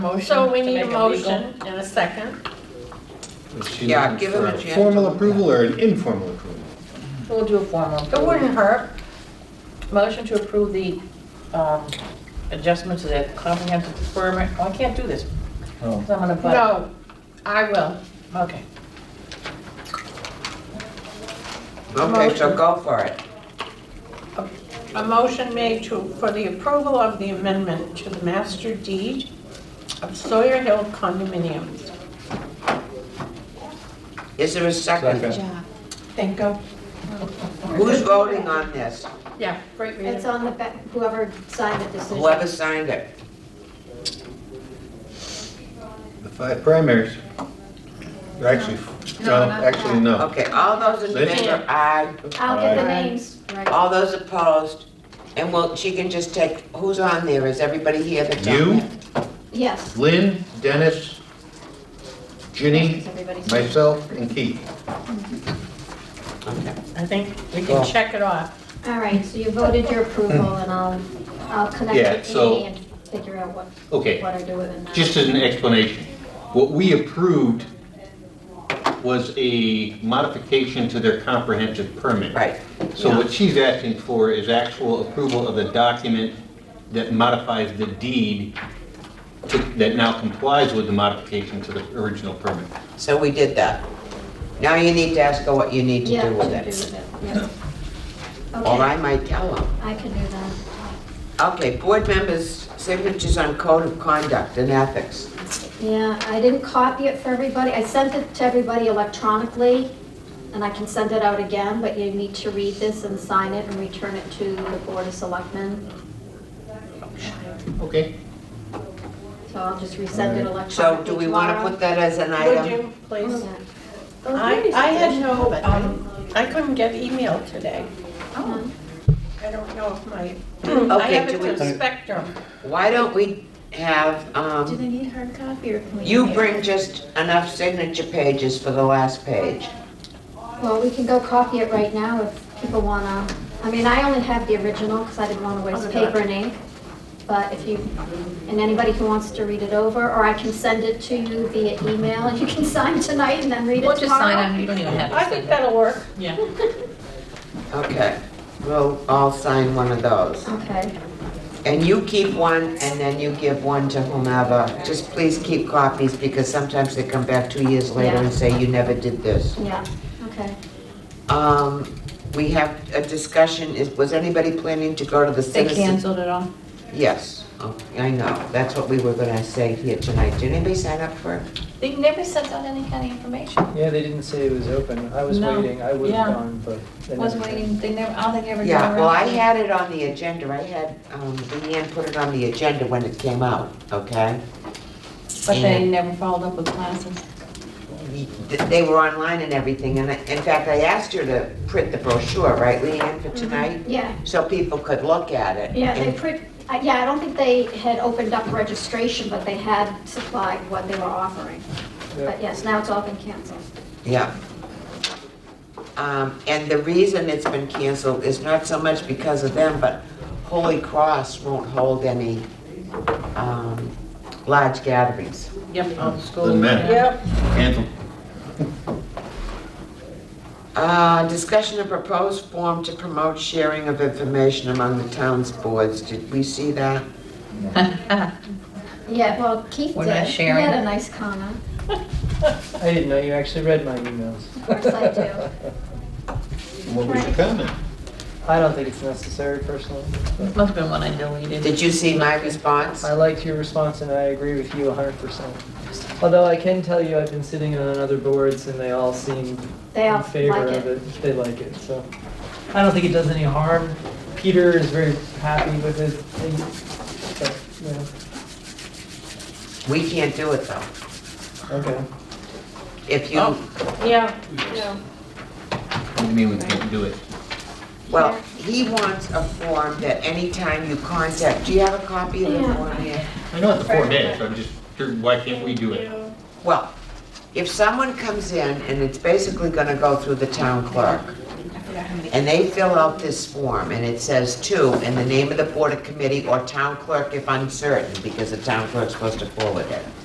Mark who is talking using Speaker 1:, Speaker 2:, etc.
Speaker 1: Motion
Speaker 2: So we
Speaker 1: to
Speaker 2: need
Speaker 1: make
Speaker 2: a
Speaker 1: it legal.
Speaker 2: motion and a second.
Speaker 3: Is she
Speaker 4: Yeah,
Speaker 3: looking
Speaker 4: give him
Speaker 3: for
Speaker 4: a chance.
Speaker 3: Formal approval or an informal approval?
Speaker 1: We'll do a formal.
Speaker 2: It wouldn't hurt.
Speaker 1: Motion to approve the um, adjustment to the comprehensive permit. Oh, I can't do this. 'cause I'm gonna butt.
Speaker 2: No, I will.
Speaker 1: Okay.
Speaker 4: Okay, so go for it.
Speaker 2: A motion made to, for the approval of the amendment to the master deed of Sawyer Hill condominiums.
Speaker 4: Is there a second?
Speaker 3: Second.
Speaker 2: Thank you.
Speaker 4: Who's voting on this?
Speaker 2: Yeah, great
Speaker 5: It's
Speaker 2: reading.
Speaker 5: on the back, whoever signed the decision.
Speaker 4: Whoever signed it?
Speaker 3: The five primaries. Or Actually, no, actually, no.
Speaker 4: Okay, all those in
Speaker 3: They-
Speaker 4: favor, aye.
Speaker 5: I'll get the
Speaker 3: Aye.
Speaker 5: names right.
Speaker 4: All those opposed? And well, she can just take, who's on there? Is everybody here that's on
Speaker 3: You,
Speaker 4: there?
Speaker 5: Yes.
Speaker 3: Lynn, Dennis, Ginny,
Speaker 5: Everybody's-
Speaker 3: myself, and Keith.
Speaker 4: Okay.
Speaker 2: I think we can check it off.
Speaker 5: All right, so you voted your approval and I'll, I'll
Speaker 3: Yeah,
Speaker 5: connect with
Speaker 3: so-
Speaker 5: Amy and figure out what,
Speaker 3: Okay,
Speaker 5: what I do with it now.
Speaker 3: just as an explanation, what we approved was a modification to their comprehensive permit.
Speaker 4: Right,
Speaker 3: So what she's asking for is actual approval of the document that modifies the deed to- that now complies with the modification to the original permit.
Speaker 4: so we did that. Now you need to ask her what you need to
Speaker 5: Yeah,
Speaker 4: do with
Speaker 5: I can do
Speaker 4: it.
Speaker 5: with it, yeah.
Speaker 4: Or
Speaker 5: Okay,
Speaker 4: I might tell them.
Speaker 5: I can do that.
Speaker 4: Okay, board members' signatures on code of conduct and ethics.
Speaker 5: Yeah, I didn't copy it for everybody. I sent it to everybody electronically, and I can send it out again, but you need to read this and sign it and return it to the Board of Selectmen.
Speaker 3: Okay.
Speaker 5: So I'll just resend it electronically
Speaker 4: So do we want to
Speaker 5: tomorrow.
Speaker 4: put that as an
Speaker 2: Would
Speaker 4: item?
Speaker 2: you please?
Speaker 5: Yeah.
Speaker 2: I, I had no, um, I couldn't get email today.
Speaker 5: Uh-huh.
Speaker 2: I don't know if my, I
Speaker 4: Okay,
Speaker 2: have
Speaker 4: do
Speaker 2: it
Speaker 4: we-
Speaker 2: to Spectrum.
Speaker 4: Why don't we have, um...
Speaker 6: Do they need hard copy or can we?
Speaker 4: You bring just enough signature pages for the last page.
Speaker 5: Well, we can go copy it right now if people want to. I mean, I only have the original because I didn't want to waste paper and ink. But if you, and anybody who wants to read it over, or I can send it to you via email and you can sign tonight and then read it
Speaker 6: We'll
Speaker 5: tomorrow.
Speaker 6: just sign on, you don't even have
Speaker 2: I
Speaker 6: to send
Speaker 2: think
Speaker 6: it.
Speaker 2: that'll work.
Speaker 6: Yeah.
Speaker 4: Okay, we'll all sign one of those.
Speaker 5: Okay,
Speaker 4: And you keep one, and then you give one to whomever. Just please keep copies, because sometimes they come back two years later and say, you never did this.
Speaker 5: yeah, okay.
Speaker 4: Um, we have a discussion, is, was anybody planning to go to the
Speaker 6: They
Speaker 4: citizen?
Speaker 6: canceled it all.
Speaker 4: Yes, Oh, I know, that's what we were gonna say here tonight. Did anybody sign up for it?
Speaker 6: They never sent out any kind of information.
Speaker 7: Yeah, they didn't say it was open. I was
Speaker 6: No.
Speaker 7: waiting. I would
Speaker 6: Yeah.
Speaker 7: have gone, but. they
Speaker 6: Was
Speaker 7: never did.
Speaker 6: waiting, they never,
Speaker 2: oh,
Speaker 6: I don't think they ever. got
Speaker 4: Yeah,
Speaker 6: around
Speaker 4: well, I
Speaker 6: to it.
Speaker 4: had it on the agenda, I had, um, Leanne put it on the agenda when it came out, okay?
Speaker 6: But they never followed up with classes.
Speaker 4: th- they were online and everything, and I- in fact, I asked her to print the brochure, right, Leanne, for tonight?
Speaker 5: Yeah,
Speaker 4: So people could look at it.
Speaker 5: Mm-hmm. yeah, they
Speaker 4: and-
Speaker 5: pre, I- yeah, I don't think they had opened up registration, but they had supplied what they were offering.
Speaker 7: Yeah.
Speaker 5: But yes, now it's all been canceled.
Speaker 4: Yeah. Um, and the reason it's been canceled is not so much because of them, but Holy Cross won't hold any, um, large gatherings.
Speaker 1: Yep, on school.
Speaker 3: Doesn't matter.
Speaker 2: Yep.
Speaker 3: Cancel.
Speaker 4: Uh, discussion of proposed form to promote sharing of information among the town's boards, did we see that?
Speaker 5: Yeah, well, Keith
Speaker 6: We're
Speaker 5: did.
Speaker 6: not sharing
Speaker 5: He had
Speaker 6: it.
Speaker 5: a nice comment.
Speaker 7: I didn't know you actually read my emails.
Speaker 5: Of course I do.
Speaker 3: What was your comment?
Speaker 7: I don't think it's necessary personally. but
Speaker 6: Must've been when I deleted.
Speaker 4: Did you see my response?
Speaker 7: I liked your response and I agree with you hundred percent. Although I can tell you, I've been sitting on other boards and they all seem
Speaker 5: They all
Speaker 7: in
Speaker 5: like
Speaker 7: favor
Speaker 5: it.
Speaker 7: of it. They like it, so. I don't think it does any harm. Peter is very happy with it. and-
Speaker 4: We can't do it though.
Speaker 7: but, yeah, Okay.
Speaker 4: If you,
Speaker 2: Oh. Yeah, yeah.
Speaker 3: What do you mean we can't do it?
Speaker 4: Well, he wants a form that anytime you contact, do you have a copy of the
Speaker 5: Yeah.
Speaker 4: form here?
Speaker 3: I know it's a four days, I'm just, why can't we do it?
Speaker 4: Well, if someone comes in and it's basically gonna go through the town clerk,
Speaker 6: forgot how many.
Speaker 4: And they fill out this form, and it says two, in the name of the board of committee or town clerk if uncertain, because the town clerk's supposed to forward it.